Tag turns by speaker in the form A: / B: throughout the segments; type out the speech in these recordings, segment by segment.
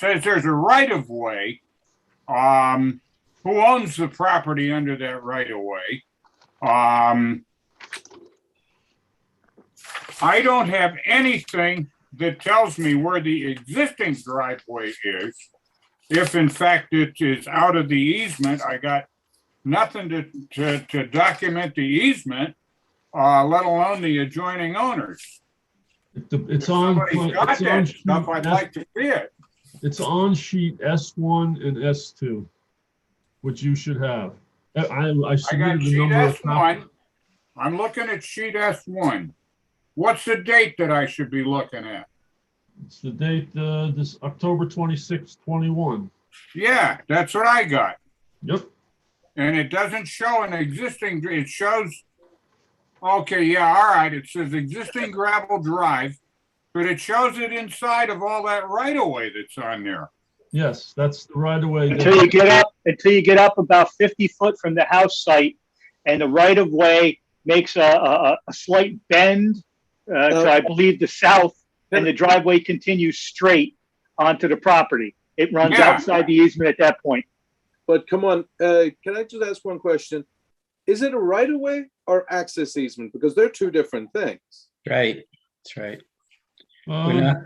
A: says there's a right of way. Um, who owns the property under that right of way? Um, I don't have anything that tells me where the existing driveway is. If in fact it is out of the easement, I got nothing to, to, to document the easement, uh, let alone the adjoining owners.
B: It- the-
A: If
B: It's on,
A: somebody's got
B: it's on
A: that
B: sheet
A: stuff, I'd
B: S-
A: like to see it.
B: it's on sheet S one and S two, which you should have. I, I- I
A: I got
B: submitted the
A: sheet
B: number
A: S
B: of copies.
A: one. I'm looking at sheet S one. What's the date that I should be looking at?
B: It's the date, uh, this October twenty-sixth, twenty-one.
A: Yeah, that's what I got.
B: Yep,
A: And it doesn't show an existing, it shows, okay, yeah, all right, it says existing gravel drive, but it shows it inside of all that right of way that's on there.
B: yes, that's the right away.
C: Until you get up, until you get up about fifty foot from the house site, and the right of way makes a, a, a- a slight bend uh, to, I believe, the south, and the driveway continues straight onto the property. It runs
A: Yeah.
C: outside the easement at that point.
D: But come on, uh, can I just ask one question? Is it a right of way or access easement? Because they're two different things.
E: Right, that's right. We're
B: Um,
E: not,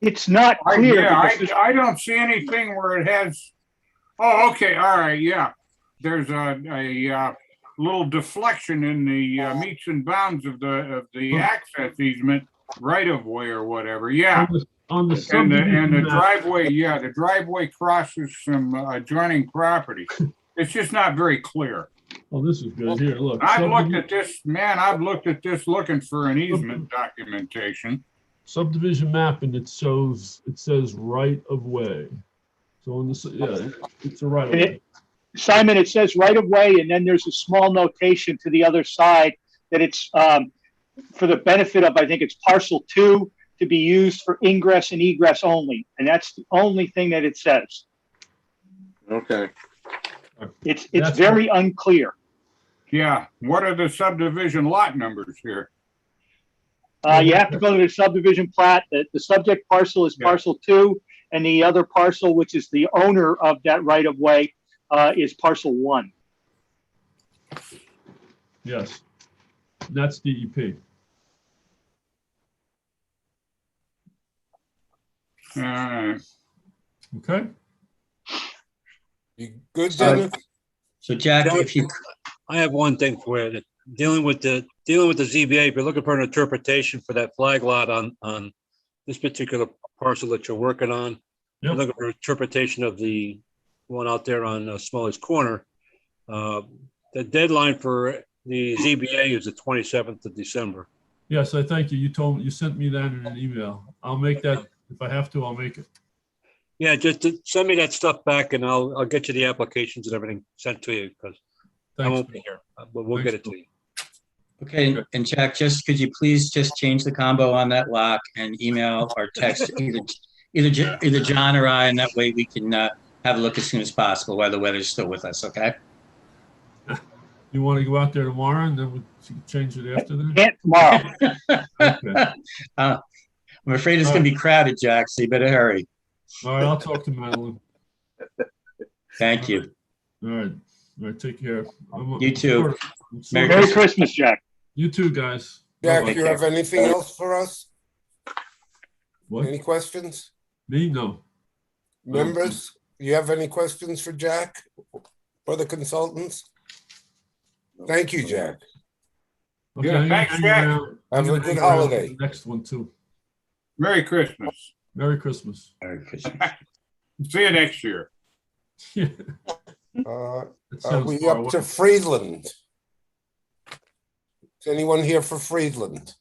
C: It's not
A: I,
C: clear.
A: yeah,
C: because
A: I,
C: this-
A: I don't see anything where it has, oh, okay, all right, yeah. There's a, a, uh, little deflection in the uh, meets and bounds of the, of the access easement right of way or whatever, yeah.
B: on the- On the
A: And the, and the
B: subdivision map,
A: driveway, yeah, the driveway crosses some adjoining property. It's just not very clear.
B: oh, this is good, here, look.
A: I've
B: subdivi-
A: looked at this, man, I've looked at this looking for an easement documentation.
B: Subdivision map and it shows, it says right of way. So on this, yeah, it's a right of way.
C: Simon, it says right of way, and then there's a small notation to the other side that it's, um, for the benefit of, I think it's parcel two, to be used for ingress and egress only. And that's the only thing that it says.
D: Okay.
C: It's, it's
B: That's-
C: very unclear.
A: Yeah, what are the subdivision lot numbers here?
C: Uh, you have to go to the subdivision plat, the, the subject parcel is
A: Yeah.
C: parcel two, and the other parcel, which is the owner of that right of way, uh, is parcel one.
B: Yes. And That's E DEP.
A: Uh,
B: Okay.
F: You good,
E: So-
F: Dennis?
E: Uh, so Jack, if you,
G: I have one thing for you, that dealing with the, dealing with the ZBA, if you're looking for an interpretation for that flag lot on, on this particular parcel that you're working on, you're
B: Yep.
G: looking for interpretation of the one out there on uh, Smalley's Corner. Uh, The deadline for the ZBA is the 27th of December.
B: Yes, I thank you. You told, you sent me that in an email. I'll make that, if I have to, I'll make it.
G: Yeah, just uh, send me that stuff back and I'll, I'll get you the applications and everything sent to you because I
B: Thanks.
G: won't be here, uh, but we'll get it to you.
E: okay, and- and Jack, just, could you please just change the combo on that lock and email or text either, either, Jo- either John or I, and that way we can, uh, have a look as soon as possible while the weather's still with us, okay?
B: You want to go out there tomorrow and then we can change it after that?
C: Can't tomorrow.
B: Okay.
E: Uh, I'm afraid it's gonna be crowded, Jack, so you better hurry.
B: All right, I'll talk to Madeline.
E: Thank you.
B: All right. All right, take care. I'm-
E: You too.
B: I'm sorry. I'm sorry.
E: Merry
C: Merry Christmas, Jack.
B: You too, guys.
F: Jack,
B: Bye-bye.
F: you have anything else for us? Any
B: What? Um,
F: questions?
B: Me? No.
F: Members, you have any questions for Jack or the consultants? Thank you, Jack.
B: Okay,
A: Yeah,
B: I'm gonna
A: thanks,
B: hang
A: Jack.
B: around- I'm
F: Have a
B: gonna
F: good
B: hang around for
F: holiday.
B: the Next one too.
A: Merry Christmas.
B: Merry Christmas.
E: Merry Christmas.
A: See you next year.
B: Yeah,
F: Uh,
B: that
F: Are
B: sounds
F: we
B: far
F: up to
B: away.
F: Friedland? Is anyone here for Friedland?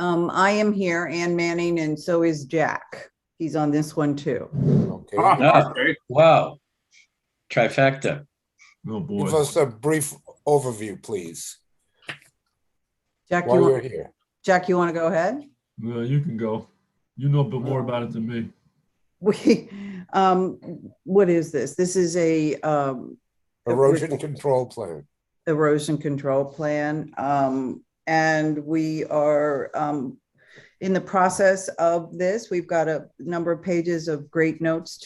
H: Um, I am here, Ann Manning, and so is Jack. He's on this one too.
F: Okay,
B: Ah,
A: Oh, okay.
E: Wow. Trifecta.
B: Oh,
F: give
B: boy.
F: us a brief overview, please,
H: Jack, you,
F: while you're
H: want-
F: here.
H: Jack, you want to go ahead?
B: No, you can go. You know a bit more about it than me.
H: We, um, what is this? This is a, um,
F: Erosion control plan.
H: erosion control plan. Um, and we are, um, in the process of this. We've got a number of pages of great notes